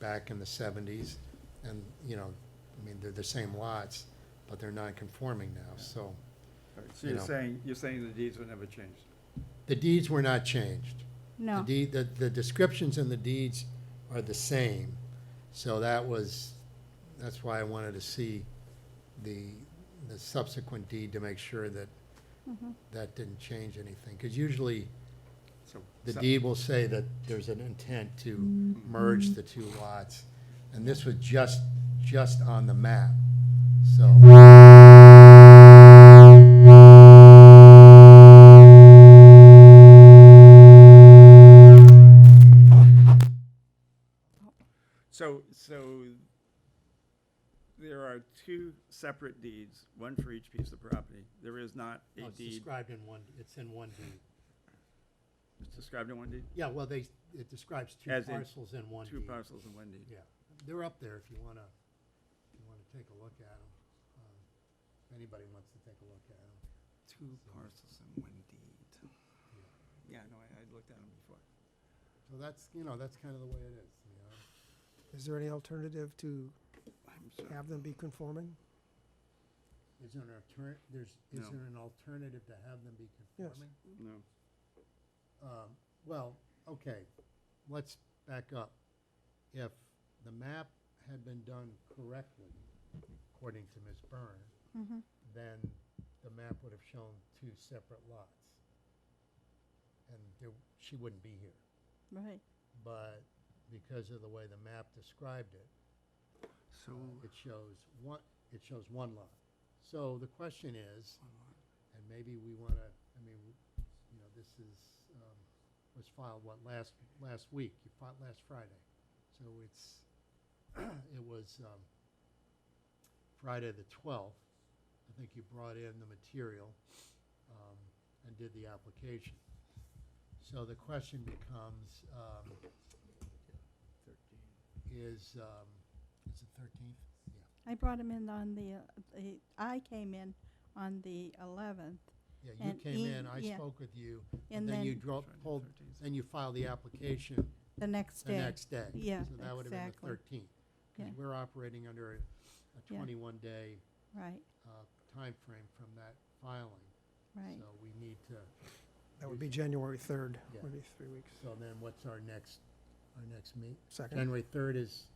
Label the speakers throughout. Speaker 1: back in the seventies, and, you know, I mean, they're the same lots, but they're non-conforming now, so.
Speaker 2: All right, So
Speaker 1: You
Speaker 2: you're
Speaker 1: know.
Speaker 2: saying, you're saying the deeds were never changed?
Speaker 1: The deeds were not changed. The
Speaker 3: No,
Speaker 1: deed, the, the descriptions in the deeds are the same, so that was, that's why I wanted to see the, the subsequent deed to make sure that
Speaker 3: Mhm.
Speaker 1: that didn't change anything, because usually
Speaker 2: So
Speaker 1: the
Speaker 2: some-
Speaker 1: deed will say that there's an intent to merge the two lots, and this was just, just on the map, so.
Speaker 2: So, so there are two separate deeds, one for each piece of property. There is not a deed,
Speaker 1: in one, it's in one deed.
Speaker 2: it's described in one deed,
Speaker 1: Yeah, well, they, it describes two
Speaker 2: As in
Speaker 1: parcels in one
Speaker 2: two
Speaker 1: deed.
Speaker 2: parcels in one deed.
Speaker 1: Yeah, they're up there if you wanna, if you wanna take a look at them. If anybody wants to take a look at them.
Speaker 2: Two parcels in one deed. Yeah, no, I, I looked at them before.
Speaker 1: So that's, you know, that's kind of the way it is, you know?
Speaker 4: Is there any alternative to
Speaker 2: I'm sorry.
Speaker 4: have them be conforming?
Speaker 1: Is there an alter, there's, is
Speaker 2: No.
Speaker 1: there an alternative to have them be
Speaker 4: Yes.
Speaker 1: conforming?
Speaker 2: No,
Speaker 1: Um, well, okay, let's back up. If the map had been done correctly, according to Ms. Byrne,
Speaker 3: Mhm.
Speaker 1: then the map would have shown two separate lots. And there, she wouldn't be here.
Speaker 3: right.
Speaker 1: But because of the way the map described it,
Speaker 2: so,
Speaker 1: it shows one, it shows one lot. So the question is, and maybe we want to, I mean, you know, this is, um, was filed, what, last, last week, you filed last Friday. So it's, it was um, Friday the 12th. I think you brought in the material um, and did the application. So the question becomes, um, is, um, is it 13th? Yeah.
Speaker 3: I brought him in on the, uh, the, I came in on the eleventh,
Speaker 1: Yeah, you
Speaker 3: And
Speaker 1: came in,
Speaker 3: E-
Speaker 1: I
Speaker 3: yeah.
Speaker 1: spoke with you, and
Speaker 3: and
Speaker 1: then you
Speaker 3: then
Speaker 1: drove,
Speaker 2: Friday the
Speaker 1: pulled,
Speaker 2: 13th.
Speaker 1: then you filed the application
Speaker 3: the next
Speaker 1: the
Speaker 3: day.
Speaker 1: next day.
Speaker 3: Yeah,
Speaker 1: So that would have been the
Speaker 3: exactly.
Speaker 1: thirteenth.
Speaker 3: Yeah.
Speaker 1: Because we're operating under a- a
Speaker 3: Yeah.
Speaker 1: twenty-one day
Speaker 3: Right,
Speaker 1: uh, timeframe from that filing.
Speaker 3: right.
Speaker 1: So we need to,
Speaker 4: That would be January 3rd,
Speaker 1: Yeah.
Speaker 4: maybe three weeks,
Speaker 1: so then what's our next, our next meet?
Speaker 4: second.
Speaker 1: January third is,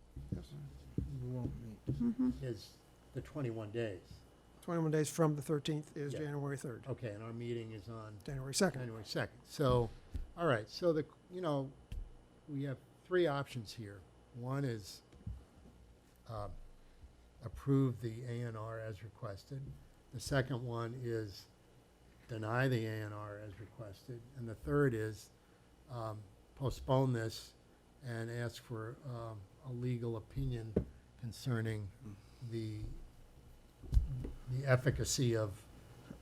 Speaker 5: We won't meet.
Speaker 3: Mhm.
Speaker 1: is the twenty-one days.
Speaker 4: 21 days from the 13th is
Speaker 1: Yeah.
Speaker 4: January 3rd,
Speaker 1: Okay, and our meeting is on
Speaker 4: January 2nd.
Speaker 1: January second. So, all right, so the, you know, we have three options here. One is, um, approve the A and R as requested. The second one is deny the A and R as requested. And the third is, um, postpone this and ask for, um, a legal opinion concerning the, the efficacy of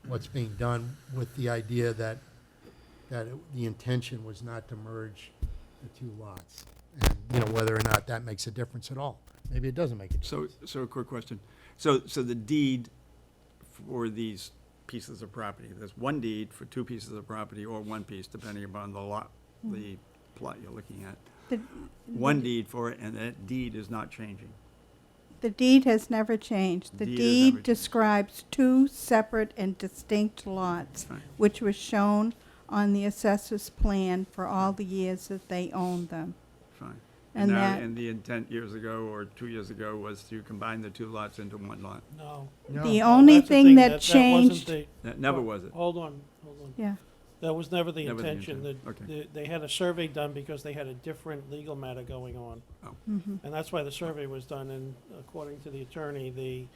Speaker 1: what's being done with the idea that, that it- the intention was not to merge the two lots. And, you know, whether or not that makes a difference at all. Maybe it doesn't make a difference.
Speaker 2: so, so a quick question. So, so the deed for these pieces of property, there's one deed for two pieces of property or one piece, depending upon the lot, the plot you're looking at.
Speaker 3: Hmm. The-
Speaker 2: One deed for it, and that deed is not changing.
Speaker 3: The deed has never changed. The
Speaker 2: Deed has never
Speaker 3: deed
Speaker 2: changed.
Speaker 3: describes two separate and distinct lots,
Speaker 2: Right.
Speaker 3: which were shown on the assessor's plan for all the years that they owned them.
Speaker 2: Fine.
Speaker 3: And
Speaker 2: now-
Speaker 3: that-
Speaker 2: And the intent years ago, or two years ago, was to combine the two lots into one lot.
Speaker 6: No.
Speaker 3: The only
Speaker 6: That's
Speaker 3: thing that
Speaker 6: wasn't
Speaker 3: changed-
Speaker 6: the-
Speaker 2: That never was it.
Speaker 6: Hold on, hold on.
Speaker 3: Yeah,
Speaker 6: That was never the
Speaker 2: Never the
Speaker 6: intention.
Speaker 2: intent.
Speaker 6: The-
Speaker 2: Okay.
Speaker 6: the- They had a survey done because they had a different legal matter going on.
Speaker 3: mhm,
Speaker 6: And that's why the survey was done, and according to the attorney, the,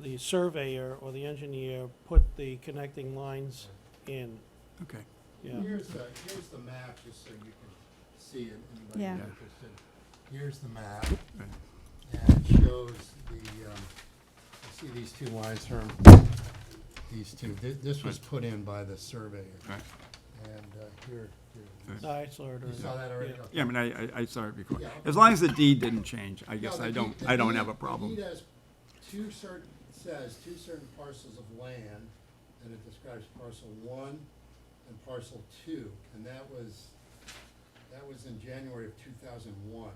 Speaker 6: the surveyor or the engineer put the connecting lines in,
Speaker 2: Okay.
Speaker 6: yeah.
Speaker 1: Here's the, here's the map, just so you can see it, anybody
Speaker 3: Yeah.
Speaker 1: who's
Speaker 2: Yeah.
Speaker 1: interested. Here's the map,
Speaker 2: Right.
Speaker 1: and it shows the, um, you see these two lines here? These two, Thi- this was put in by the surveyor,
Speaker 2: Right.
Speaker 1: and uh, here, here.
Speaker 2: Right.
Speaker 6: No, I saw it
Speaker 1: You saw
Speaker 6: already.
Speaker 1: that already?
Speaker 6: Yeah.
Speaker 1: Okay.
Speaker 2: Yeah, I mean, I, I, I saw it before.
Speaker 1: Yeah.
Speaker 2: As long as the deed didn't change, I
Speaker 1: No,
Speaker 2: guess
Speaker 1: the
Speaker 2: I
Speaker 1: deed-
Speaker 2: don't,
Speaker 1: the
Speaker 2: I don't
Speaker 1: deed-
Speaker 2: have a
Speaker 1: the
Speaker 2: problem.
Speaker 1: deed has two certain, says two certain parcels of land, and it describes parcel one and parcel two, and that was, that was in January of two thousand one.